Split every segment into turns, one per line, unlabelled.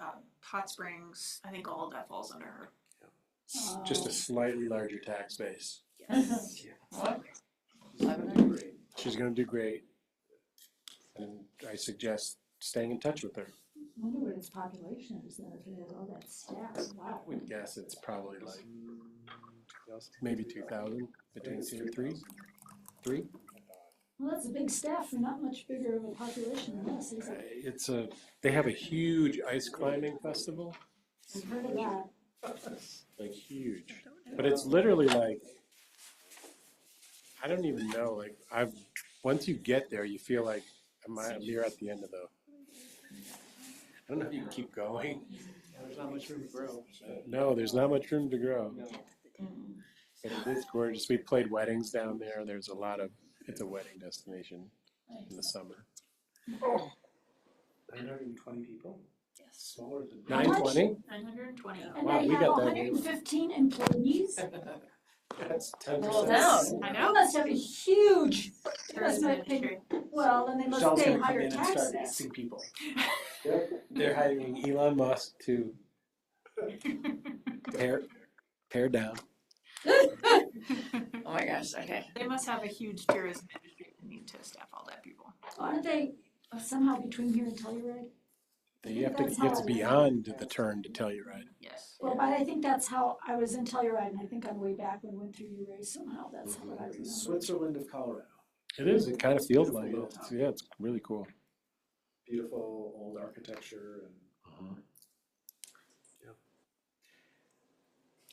um, Hot Springs, I think all of that falls under her.
S-
Oh.
Just a slightly larger tax base.
Yes.
What?
She's gonna do great. And I suggest staying in touch with her.
Wonder what its population is now, if it has all that staff, wow.
I would guess it's probably like maybe two thousand between two and three. Three?
Well, that's a big staff for not much bigger of a population than us, is
Uh,
it?
It's a, they have a huge ice climbing festival,
I've heard of that.
like huge. But it's literally like, I don't even know, like, I've, once you get there, you feel like, am I, you're at the end of the. I don't know if you can keep going.
There's not much room to grow.
No, there's not much room to grow. But it is gorgeous. We played weddings down there. There's a lot of, it's a wedding destination in the summer.
Nine hundred and twenty people?
Yes.
Smaller than.
How much?
Nine twenty?
Nine hundred and twenty.
And
Wow,
they
we
have
got that
hundred and fifteen employees?
That's ten
Well,
percent.
no.
I
They
know.
must have a huge, they must
Tourism
make,
industry.
well, and they must
Michelle's
pay
gonna come
higher
in and start
taxes.
asking people.
They're hiring Elon Musk to tear, tear down.
Oh my gosh, okay.
They must have a huge tourism industry that need to staff all that people.
Aren't they uh, somehow between here and Telluride?
You have to, you have to be on to the turn to tell you right.
Yes.
Well, but I think that's how, I was in Telluride and I think on the way back we went through Uray somehow, that's what I remember.
Switzerland of Colorado,
It is, it kind of feels like it. It's- Yeah, it's really cool.
beautiful old architecture and.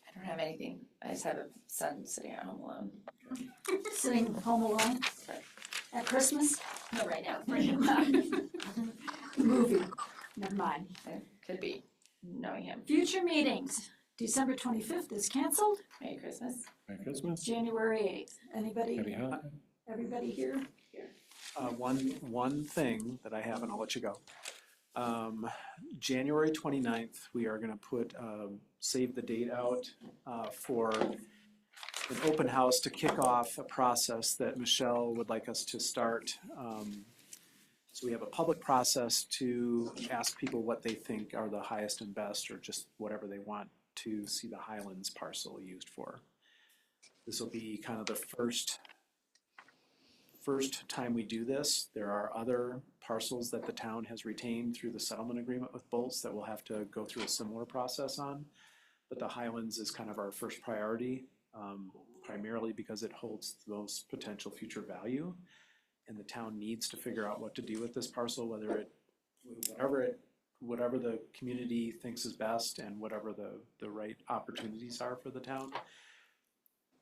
I don't have anything. I just have a son sitting at home alone.
Sitting home alone at Christmas,
No, right now.
movie, never mind.
Could be knowing him.
Future meetings, December twenty-fifth is canceled,
Merry Christmas.
Merry Christmas.
January eighth. Anybody,
Happy holidays.
everybody here?
Uh, one, one thing that I have, and I'll let you go. Um, January 29th, we are gonna put, um, save the date out, uh, for an open house to kick off a process that Michelle would like us to start. Um, So we have a public process to ask people what they think are the highest and best, or just whatever they want to see the Highlands parcel used for. This will be kind of the first first time we do this, there are other parcels that the town has retained through the settlement agreement with Bolts that we'll have to go through a similar process on. But the Highlands is kind of our first priority, um, primarily because it holds the most potential future value. And the town needs to figure out what to do with this parcel, whether it, whatever it, whatever the community thinks is best and whatever the, the right opportunities are for the town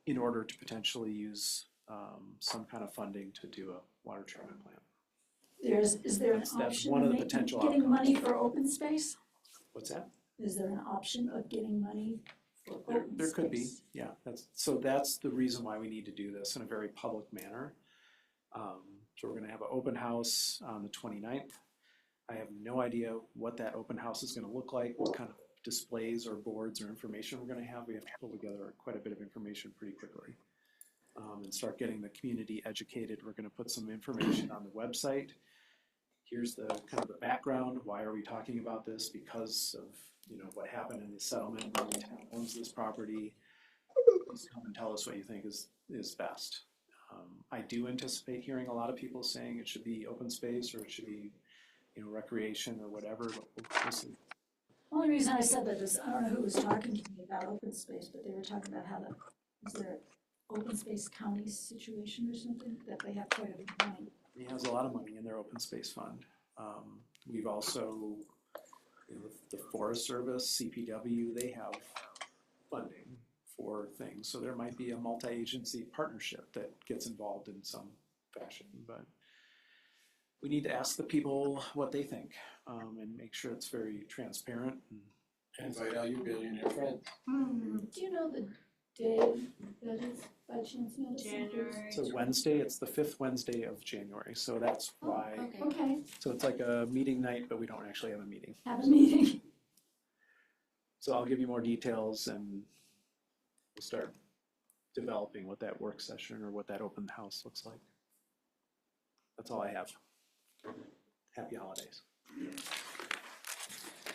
in order to potentially use um, some kind of funding to do a water treatment plant.
There's, is there an
That's- that's
option
one of
of
the
making,
potential
getting money
outcomes.
for open space?
What's that?
Is there an option of getting money for
There,
open space?
there could be, yeah, that's, so that's the reason why we need to do this in a very public manner. Um, so we're gonna have an open house on the 29th. I have no idea what that open house is gonna look like, what kind of displays or boards or information we're gonna have. We have to pull together quite a bit of information pretty quickly. Um, and start getting the community educated. We're gonna put some information on the website. here's the kind of the background, why are we talking about this? Because of, you know, what happened in the settlement, when the town owns this property. Please come and tell us what you think is, is best. Um, I do anticipate hearing a lot of people saying it should be open space or it should be, you know, recreation or whatever. but we'll- we'll see.
Only reason I said that is, I don't know who was talking to me about open space, but they were talking about how the, is there open space county situation or something, that they have quite a bit of money.
He has a lot of money in their open space fund. Um, we've also, you know, the Forest Service, CPW, they have funding for things. So there might be a multi-agency partnership that gets involved in some fashion, but we need to ask the people what they think, um, and make sure it's very transparent.
Invite all your billionaire friends.
Do you know the day that is by chance medicine?
January.
So Wednesday, it's the fifth Wednesday of January, so that's why,
Okay,
so it's like a meeting night, but we don't actually have a meeting.
have a meeting.
So I'll give you more details and we'll start developing what that work session or what that open house looks like. That's all I have. Happy holidays.